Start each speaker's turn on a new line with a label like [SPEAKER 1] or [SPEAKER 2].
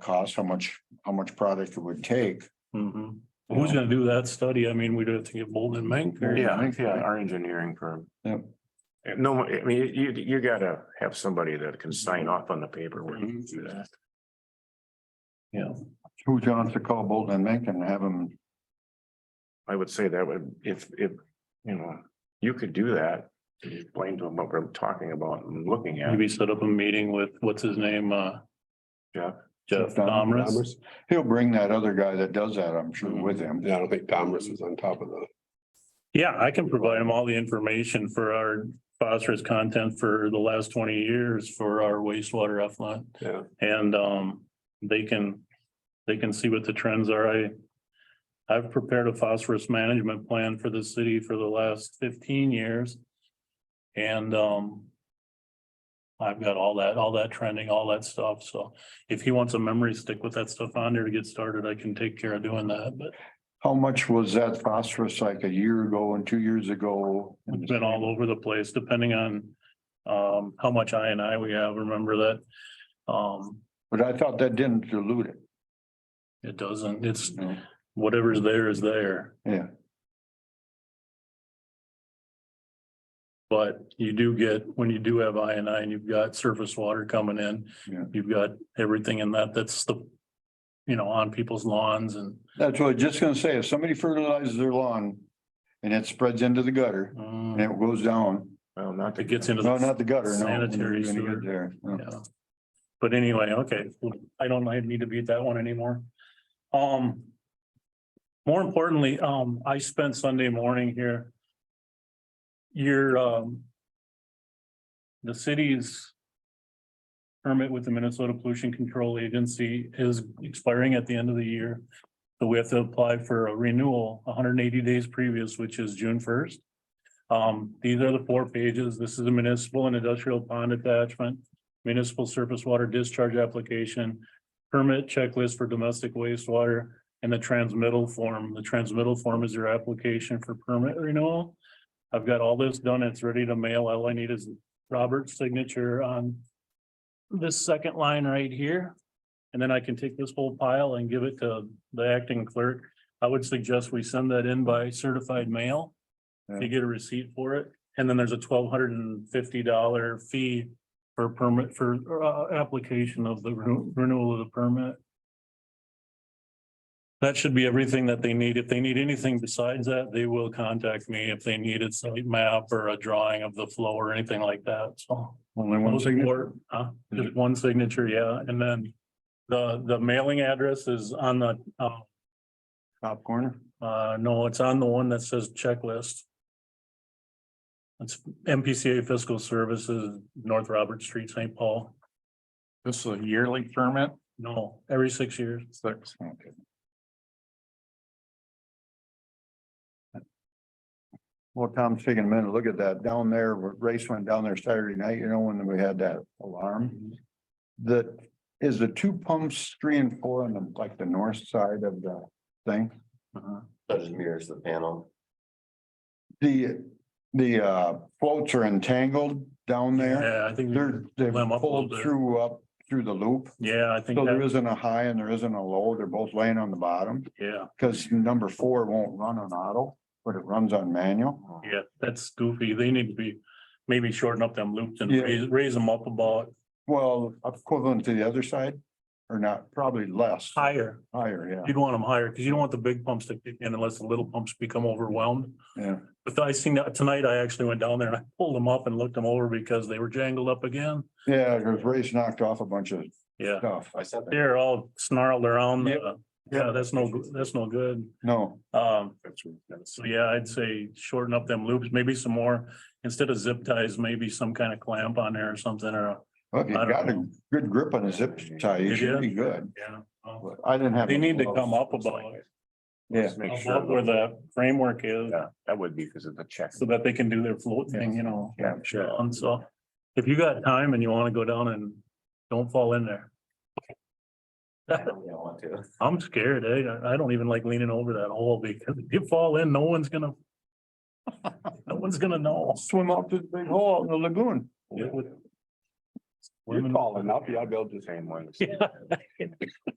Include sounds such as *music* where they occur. [SPEAKER 1] cost, how much, how much product it would take.
[SPEAKER 2] Mhm.
[SPEAKER 3] Who's gonna do that study? I mean, we'd have to get Bolton and Mink. or-
[SPEAKER 2] Yeah, yeah, our engineering firm. Eh,
[SPEAKER 1] Yep.
[SPEAKER 2] No, I mean, you, you gotta have somebody that can sign off on the paperwork.
[SPEAKER 3] Mhm.
[SPEAKER 2] Do that.
[SPEAKER 3] Yeah,
[SPEAKER 1] Who John to call Bolton and Mink and have them,
[SPEAKER 2] I would say that would, if, if, you know, you could do that. Explain to them what we're talking about and looking at.
[SPEAKER 3] maybe set up a meeting with, what's his name, uh?
[SPEAKER 2] Jeff.
[SPEAKER 3] Jeff
[SPEAKER 1] Jeff
[SPEAKER 3] Domrus. Mm-hmm.
[SPEAKER 1] he'll bring that other guy that does that, I'm sure, with him.
[SPEAKER 4] Yeah, I don't think Domrus was on top of the,
[SPEAKER 3] Yeah, I can provide him all the information for our phosphorus content for the last twenty years for our wastewater effluent.
[SPEAKER 4] Yeah.
[SPEAKER 3] And um, they can, they can see what the trends are. I. I've prepared a phosphorus management plan for the city for the last fifteen years. And um. I've got all that, all that trending, all that stuff. So if he wants a memory stick with that stuff on there to get started, I can take care of doing that, but.
[SPEAKER 1] How much was that phosphorus like a year ago and two years ago?
[SPEAKER 3] It's been all over the place, depending on um how much I and I we have, remember that. Um,
[SPEAKER 1] But I thought that didn't dilute it,
[SPEAKER 3] it doesn't, it's
[SPEAKER 1] you know?
[SPEAKER 3] whatever's there is there,
[SPEAKER 1] yeah,
[SPEAKER 3] but you do get, when you do have I and I and you've got surface water coming in.
[SPEAKER 1] Yeah.
[SPEAKER 3] You've got everything in that, that's the, you know, on people's lawns and.
[SPEAKER 1] that's what I was just gonna say, if somebody fertilizes their lawn and it spreads into the gutter
[SPEAKER 3] mm,
[SPEAKER 1] and it goes down,
[SPEAKER 2] Well, not to
[SPEAKER 3] It
[SPEAKER 2] get,
[SPEAKER 3] gets into. the
[SPEAKER 1] no, not the gutter, no.
[SPEAKER 3] Sanitary
[SPEAKER 1] You're gonna
[SPEAKER 3] sewer.
[SPEAKER 1] get there, no.
[SPEAKER 3] Yeah. But anyway, okay, I don't I need to beat that one anymore. Um. More importantly, um, I spent Sunday morning here. Your, um. The city's. Permit with the Minnesota Pollution Control Agency is expiring at the end of the year. So we have to apply for a renewal hundred and eighty days previous, which is June first. Um, these are the four pages. This is a municipal and industrial pond attachment municipal surface water discharge application, permit checklist for domestic wastewater, and the transmittal form. The transmittal form is your application for permit renewal. I've got all this done. It's ready to mail. All I need is Robert's signature on this second line right here. And then I can take this whole pile and give it to the acting clerk. I would suggest we send that in by certified mail to
[SPEAKER 1] Yeah.
[SPEAKER 3] get a receipt for it. And then there's a twelve hundred and fifty dollar fee for permit, for uh, application of the renew- renewal of the permit. That should be everything that they need. If they need anything besides that, they will contact me if they needed some map or a drawing of the flow or anything like that, so.
[SPEAKER 1] Only one signature,
[SPEAKER 3] Or, huh? Just one signature, yeah, and then the, the mailing address is on the, uh,
[SPEAKER 1] top corner.
[SPEAKER 3] uh, no, it's on the one that says checklist. It's MPCA Fiscal Services, North Robert Street, St. Paul.
[SPEAKER 5] This is a yearly permit,
[SPEAKER 3] No, every six years.
[SPEAKER 5] six,
[SPEAKER 1] Okay. Well, Tom's taking a minute, to look at that down there, race went down there Saturday night, you know, when we had that alarm. The, is the two pumps, three and four on the, like the north side of the thing?
[SPEAKER 6] Uh-huh. That just mirrors the panel.
[SPEAKER 1] The, the uh, floats are entangled down there.
[SPEAKER 3] Yeah, I think,
[SPEAKER 1] They're, they've
[SPEAKER 3] Limb up a little
[SPEAKER 1] pulled
[SPEAKER 3] bit.
[SPEAKER 1] through up, through the loop.
[SPEAKER 3] yeah, I think,
[SPEAKER 1] So there
[SPEAKER 3] that-
[SPEAKER 1] isn't a high and there isn't a low. They're both laying on the bottom.
[SPEAKER 3] yeah,
[SPEAKER 1] Cause number four won't run on auto, but it runs on
[SPEAKER 6] Uh-huh.
[SPEAKER 1] manual.
[SPEAKER 3] yeah, that's goofy. They need to be maybe shorten up them loops and
[SPEAKER 1] Yeah.
[SPEAKER 3] raise, raise them up about
[SPEAKER 1] Well, equivalent to the other side or not, probably less,
[SPEAKER 3] higher.
[SPEAKER 1] higher, yeah,
[SPEAKER 3] You'd want them higher because you don't want the big pumps to kick in unless the little pumps become overwhelmed.
[SPEAKER 1] yeah.
[SPEAKER 3] But I seen that tonight, I actually went down there and I pulled them up and looked them over because they were jangled up again.
[SPEAKER 1] Yeah, because Ray's knocked off a bunch of
[SPEAKER 3] Yeah,
[SPEAKER 1] stuff.
[SPEAKER 6] I sent that.
[SPEAKER 3] they're all snarled around.
[SPEAKER 1] Yep.
[SPEAKER 3] uh, Yeah, that's no, good- that's no good.
[SPEAKER 1] No,
[SPEAKER 3] Um, so yeah, I'd say shorten up them loops, maybe some more, instead of zip ties, maybe some kind of clamp on there or something or, a-
[SPEAKER 1] if you
[SPEAKER 3] I don't
[SPEAKER 1] got a
[SPEAKER 3] know.
[SPEAKER 1] good grip on a zip tie, you
[SPEAKER 3] You
[SPEAKER 1] should
[SPEAKER 3] did?
[SPEAKER 1] be good.
[SPEAKER 3] yeah. uh,
[SPEAKER 1] But I didn't have.
[SPEAKER 3] They need to
[SPEAKER 1] gloves.
[SPEAKER 3] come up about,
[SPEAKER 1] Yeah,
[SPEAKER 2] just make
[SPEAKER 3] about
[SPEAKER 2] sure,
[SPEAKER 3] where the framework is,
[SPEAKER 2] Yeah. that would be because of the check.
[SPEAKER 3] so that they can do their float thing, you know.
[SPEAKER 2] Yeah, sure.
[SPEAKER 3] And so, if you got time and you wanna go down and don't fall in there,
[SPEAKER 6] I don't really want to.
[SPEAKER 3] I'm scared, eh? I, I don't even like leaning over that hole because if you fall in, no one's gonna. *laughs* No one's gonna know.
[SPEAKER 1] Swim up to the big hole out in the lagoon.
[SPEAKER 3] It would-
[SPEAKER 4] you're tall enough, yeah, I'll be able to.
[SPEAKER 2] Same ones.
[SPEAKER 3] *laughs* Yeah.